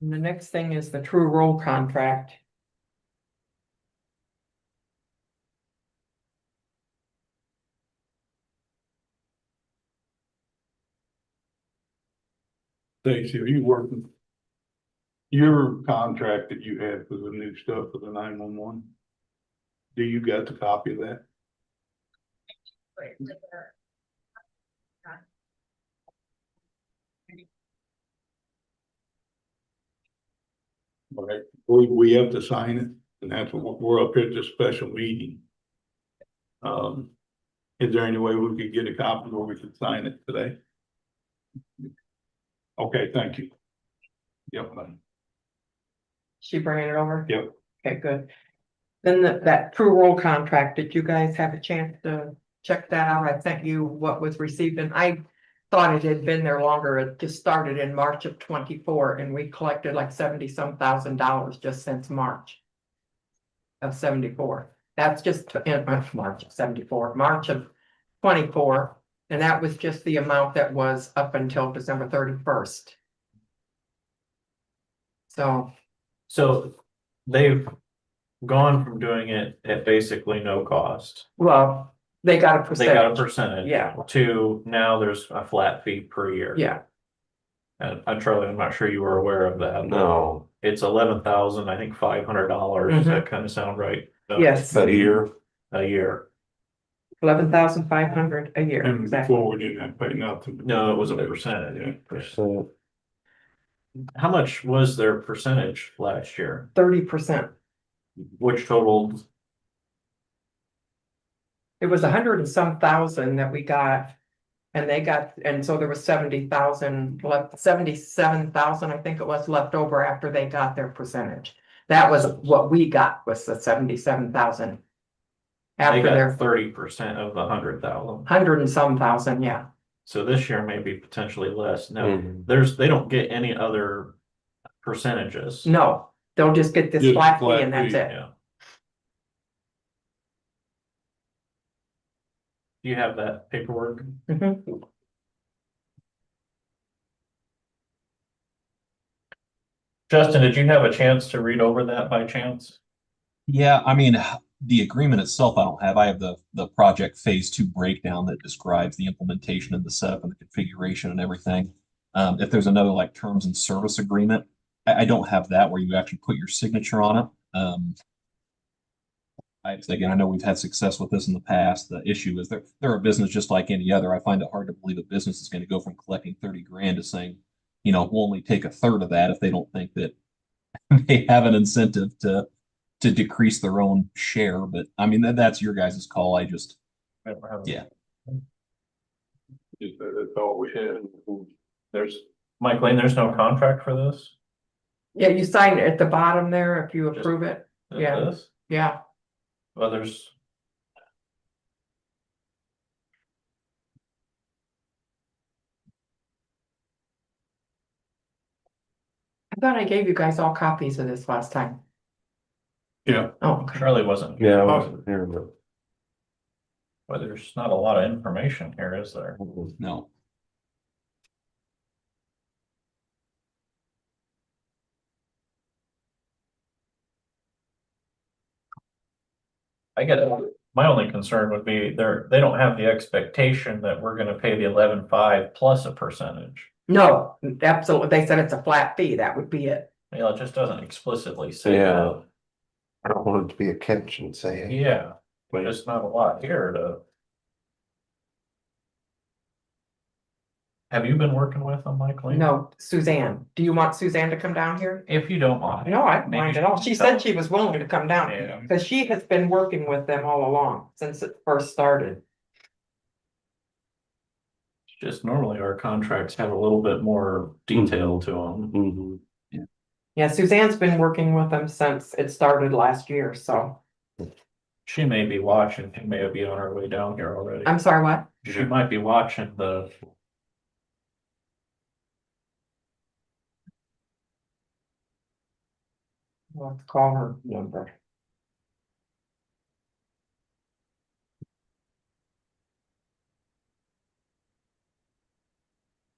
And the next thing is the true roll contract. Stacy, are you working? Your contract that you had for the new stuff for the nine one one? Do you got the copy of that? Right, we, we have to sign it, and that's what, we're up here at this special meeting. Um, is there any way we could get a copy where we could sign it today? Okay, thank you. Yep, She bringing it over? Yep. Okay, good. Then that, that true roll contract, did you guys have a chance to check that out? I sent you what was received and I thought it had been there longer. It just started in March of twenty-four and we collected like seventy some thousand dollars just since March of seventy-four. That's just to- in uh, March of seventy-four, March of twenty-four. And that was just the amount that was up until December thirty-first. So. So they've gone from doing it at basically no cost. Well, they got a They got a percentage. percentage. Yeah. To now there's a flat fee per year. Yeah, And uh, Charlie, I'm not sure you were aware of that. No, It's eleven thousand, I think five hundred dollars. Does that kind of sound right? Uh, Mm-hmm. yes, that year, A year. eleven thousand five hundred a year. and Exactly. before we didn't have to pay nothing. No, it was a Yeah. percentage. percent, How much was their percentage last year? Thirty percent. Which totaled, It was a hundred and some thousand that we got. And they got, and so there was seventy thousand left, seventy-seven thousand, I think it was left over after they got their percentage. That was what we got was the seventy-seven thousand. they After got their thirty percent of the hundred thousand. hundred and some thousand, yeah. So this year may be potentially less. Now, Mhm. there's, they don't get any other percentages. No, they'll just get this Just flat fee flat and that's fee, it. Yeah. Do you have that paperwork? Mhm. Justin, did you have a chance to read over that by chance? Yeah, I mean, the agreement itself, I don't have. I have the, the project phase two breakdown that describes the implementation and the setup and the configuration and everything. Um, if there's another like terms and service agreement, I, I don't have that where you actually put your signature on it. Um. I, again, I know we've had success with this in the past. The issue is they're, they're a business just like any other. I find it hard to believe a business is gonna go from collecting thirty grand to saying, you know, we'll only take a third of that if they don't think that they have an incentive to to decrease their own share, but I mean, that, that's your guys' call. I just, I don't have it. Yeah. Just that- That's all we had. There's, Mike Lane, there's no contract for this? Yeah, you sign at the bottom there if you approve it. Is Yeah. this? Yeah, Well, there's. I thought I gave you guys all copies of this last time. Yeah. Oh, okay. Charlie wasn't, yeah, I wasn't here, but. well, there's not a lot of information here, is there? no. I get, my only concern would be they're, they don't have the expectation that we're gonna pay the eleven five plus a percentage. No, absolutely. They said it's a flat fee. That would be it. You know, it just doesn't explicitly say Yeah. that. I don't want it to be a catch and say, Yeah, but Right. it's not a lot here to. Have you been working with them, Mike Lane? No, Suzanne, do you want Suzanne to come down here? If you don't mind. No, I don't mind at all. She said she was willing to come down Yeah. because she has been working with them all along since it first started. Just normally our contracts have a little bit more detail to them. Mhm. Yeah, Suzanne's been working with them since it started last year. So She may be watching, she may be on her way down here already. I'm sorry, what? She might be watching the. Let's call her number.